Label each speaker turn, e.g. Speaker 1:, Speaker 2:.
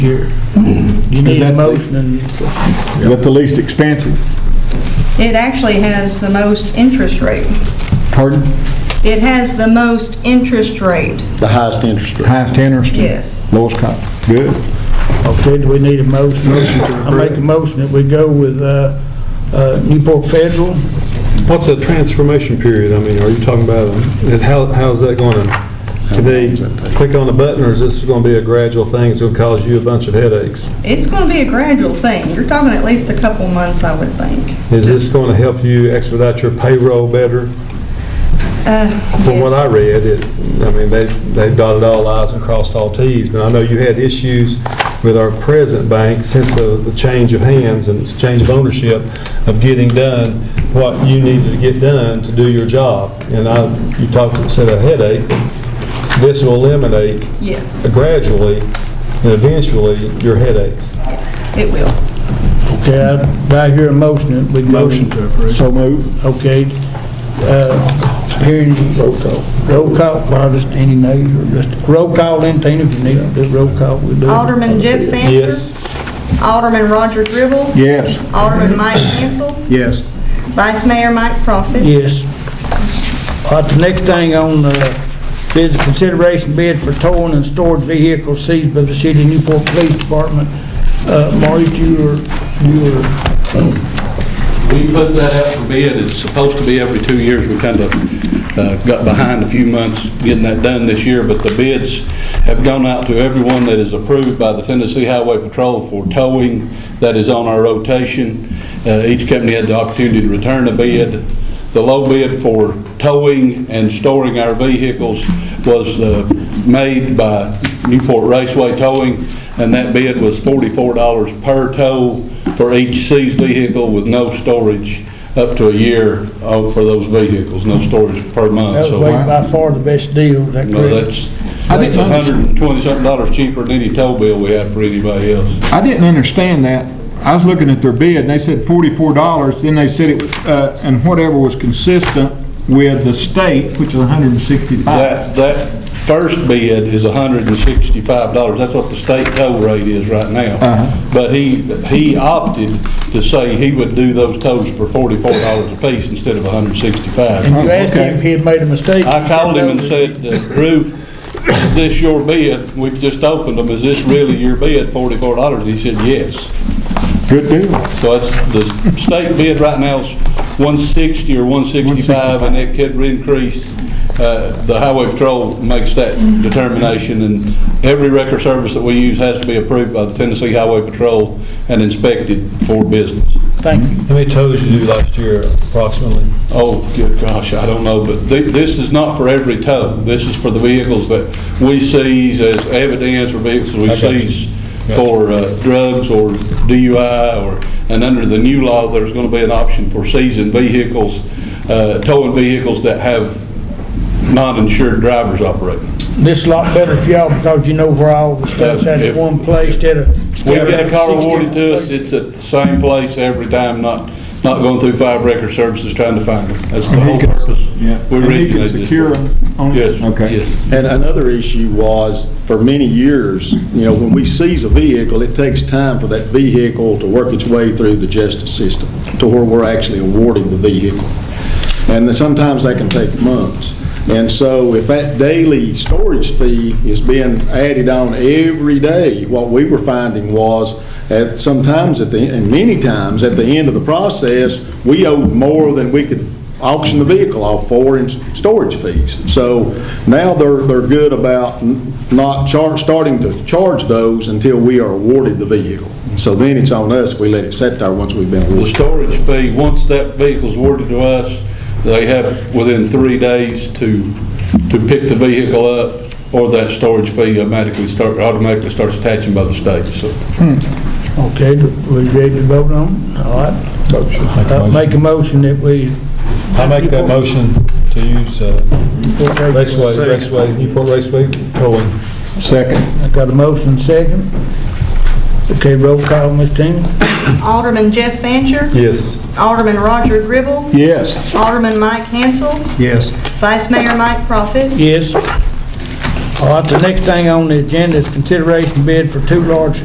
Speaker 1: Sure. You need a
Speaker 2: that the-
Speaker 1: motion and,
Speaker 2: Is that the least expensive?
Speaker 3: It actually has the most interest rate.
Speaker 2: Pardon?
Speaker 3: It has the most interest rate,
Speaker 4: The highest interest rate.
Speaker 2: Highest interest?
Speaker 3: yes.
Speaker 2: Lowest cost? Good.
Speaker 1: okay, do we need a motion? Motion to I make a motion that we go with uh, uh, Newport Federal.
Speaker 5: What's that transformation period? I mean, are you talking about, and how, how's that going to, can they click on a button, or is this going to be a gradual thing, it's going to cause you a bunch of headaches?
Speaker 3: It's going to be a gradual thing. You're talking at least a couple months, I would think.
Speaker 5: Is this going to help you expedite your payroll better? From what I read, it, I mean, they, they dotted all i's and crossed all t's, but I know you had issues with our present bank since the, the change of hands and this change of ownership of getting done what you needed to get done to do your job. And I, you talked, said a headache, this will eliminate
Speaker 3: Yes,
Speaker 5: gradually and eventually your headaches.
Speaker 3: it will.
Speaker 1: Okay, I- do I hear a motion that we go? Motion to approve.
Speaker 2: So move.
Speaker 1: Okay. uh, Hearing,
Speaker 2: Roll call.
Speaker 1: roll call, well, just any names, or just, roll call then, Tina, if you need, it, just roll call. we'll do it.
Speaker 3: Alderman Jeff Fancher.
Speaker 5: Yes,
Speaker 3: Alderman Roger Gribble.
Speaker 2: Yes.
Speaker 3: Alderman Mike Hansel. Yes. Vice Mayor Mike Profit.
Speaker 1: Yes. All right, the next thing on uh, bid, is consideration bid for towing and stored vehicles seized by the city of Newport Police Department. Uh, Maurice, you were, you were,
Speaker 6: We put that out for bid, it's supposed to be every two years, we kind of uh, got behind a few months getting that done this year, but the bids have gone out to everyone that is approved by the Tennessee Highway Patrol for towing that is on our rotation. Uh, Each company had the opportunity to return a bid. The low bid for towing and storing our vehicles was uh, made by Newport Raceway Towing, and that bid was $44 per tow for each seized vehicle with no storage up to a year uh, for those vehicles, no storage per month.
Speaker 1: that was
Speaker 6: So
Speaker 1: way by far the best deal, is that
Speaker 6: no,
Speaker 1: correct?
Speaker 6: that's, that's a hundred and twenty something dollars cheaper than any tow bill we have for anybody else.
Speaker 2: I didn't understand that. I was looking at their bid, and they said forty-four dollars, then they said it, was, uh, and whatever was consistent with the state, which is a hundred and sixty-five.
Speaker 6: That, that first bid is hundred and sixty-five dollars, that's what the state tow rate is right now.
Speaker 1: Uh-huh.
Speaker 6: But he, he opted to say he would do those tows for forty-four dollars apiece instead of hundred and sixty-five.
Speaker 1: And you asked him if he had made a mistake.
Speaker 6: Oh, I called him and said, uh, Drew, is this your bid? We've just opened them, is this really your bid, forty-four dollars? He said, yes.
Speaker 2: Good deal.
Speaker 6: So it's, the state bid right now is one sixty or one sixty-five, and it could increase. Uh, The highway patrol makes that determination, and every record service that we use has to be approved by the Tennessee Highway Patrol and inspected for business.
Speaker 1: Thank you.
Speaker 5: how many tows you do last year approximately?
Speaker 6: Oh, good gosh, I don't know, but thi- this is not for every tow. This is for the vehicles that we seize as evidence or vehicles we
Speaker 5: I got you.
Speaker 6: seize
Speaker 5: Got you.
Speaker 6: for uh, drugs or DUI or, and under the new law, there's going to be an option for seizing vehicles, uh, towing vehicles that have non-insured drivers operating.
Speaker 1: This is a lot better for y'all because you know where all the stuff's at in one place instead of.
Speaker 6: We get a car awarded to us, it's at the same place every time, not, not going through five record services trying to find them. That's the
Speaker 2: And he
Speaker 6: whole
Speaker 2: can-
Speaker 6: purpose.
Speaker 2: yeah.
Speaker 6: We
Speaker 2: And he can
Speaker 6: originated this
Speaker 2: secure
Speaker 6: for.
Speaker 2: 'em on-
Speaker 6: Yes,
Speaker 2: Okay.
Speaker 6: yes.
Speaker 4: And another issue was, for many years, you know, when we seize a vehicle, it takes time for that vehicle to work its way through the justice system to where we're actually awarding the vehicle. And then sometimes that can take months. And so if that daily storage fee is being added on every day, what we were finding was, at sometimes at the, and many times, at the end of the process, we owed more than we could auction the vehicle off for in storage fees. So now they're, they're good about n- not char, starting to charge those until we are awarded the vehicle. So then it's on us if we let it sit there once we've been
Speaker 6: The
Speaker 4: awarded.
Speaker 6: storage fee, once that vehicle's awarded to us, they have within three days to, to pick the vehicle up, or that storage fee automatically start, automatically starts attaching by the state, so.
Speaker 1: Okay, we ready to vote on? it? All right. Uh, Make a motion that we.
Speaker 5: I make that motion to use uh, Raceway,
Speaker 1: Raceway.
Speaker 5: Raceway, Newport Raceway towing.
Speaker 2: Second.
Speaker 1: I got a motion second. Okay, roll call, Ms. Tina.
Speaker 3: Alderman Jeff Fancher.
Speaker 5: Yes.
Speaker 3: Alderman Roger Gribble.
Speaker 2: Yes.
Speaker 3: Alderman Mike Hansel.
Speaker 1: Yes.
Speaker 3: Vice Mayor Mike Profit.
Speaker 1: Yes. All right, the next thing on the agenda is consideration bid for two large